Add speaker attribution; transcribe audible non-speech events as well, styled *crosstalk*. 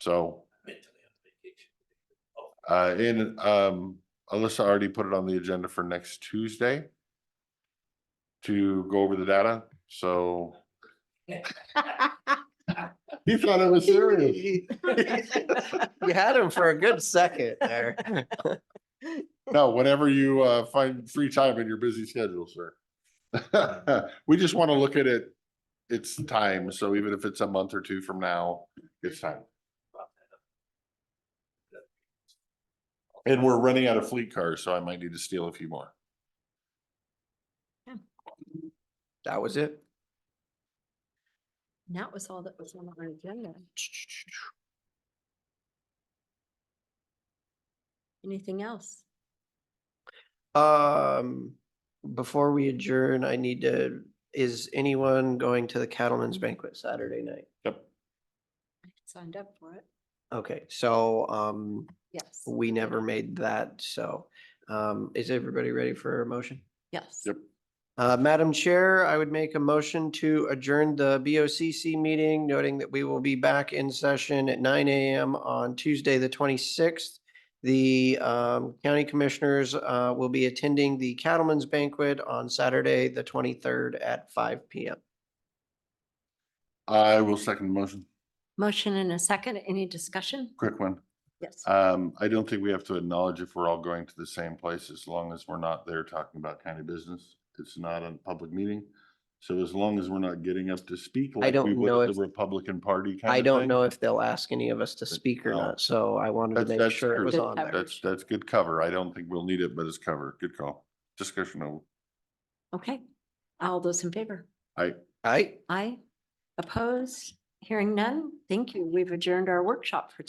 Speaker 1: So,
Speaker 2: mentally on vacation.
Speaker 1: uh, and, um, Alyssa already put it on the agenda for next Tuesday to go over the data, so. He thought it was serious.
Speaker 2: *laughs*
Speaker 3: You had him for a good second there.
Speaker 1: No, whenever you, uh, find free time in your busy schedule, sir. *laughs* We just want to look at it. It's time, so even if it's a month or two from now, it's time. And we're running out of fleet cars, so I might need to steal a few more.
Speaker 3: That was it.
Speaker 4: That was all that was on our agenda. Anything else?
Speaker 3: Um, before we adjourn, I need to, is anyone going to the Cattlemen's Banquet Saturday night?
Speaker 1: Yep.
Speaker 4: I Signed up for it.
Speaker 3: Okay, so, um,
Speaker 4: Yes,
Speaker 3: we never made that, so, um, is everybody ready for a motion?
Speaker 4: yes.
Speaker 1: Yep.
Speaker 3: Uh, Madam Chair, I would make a motion to adjourn the BOCC meeting, noting that we will be back in session at nine AM on Tuesday, the twenty-sixth. The um, county commissioners uh, will be attending the Cattlemen's Banquet on Saturday, the twenty-third at five PM.
Speaker 1: I will second the motion.
Speaker 4: Motion and a second. Any discussion?
Speaker 1: Quick one.
Speaker 4: Yes.
Speaker 1: Um, I don't think we have to acknowledge if we're all going to the same place, as long as we're not there talking about county business. It's not a public meeting. So as long as we're not getting up to speak like we
Speaker 3: don't
Speaker 1: would
Speaker 3: know
Speaker 1: at the
Speaker 3: if-
Speaker 1: Republican Party kind of
Speaker 3: I don't
Speaker 1: thing.
Speaker 3: know if they'll ask any of us to speak or
Speaker 1: No.
Speaker 3: not, so I wanted to
Speaker 1: That's-
Speaker 3: make
Speaker 1: that's
Speaker 3: sure it
Speaker 1: true.
Speaker 3: was
Speaker 4: Good
Speaker 3: on there.
Speaker 1: That's, that's good cover. I don't think we'll need it, but it's cover. Good call. Discussion over.
Speaker 4: Okay. All those in favor?
Speaker 3: All right.
Speaker 4: Aye. Opposed? Hearing none? Thank you. We've adjourned our workshop for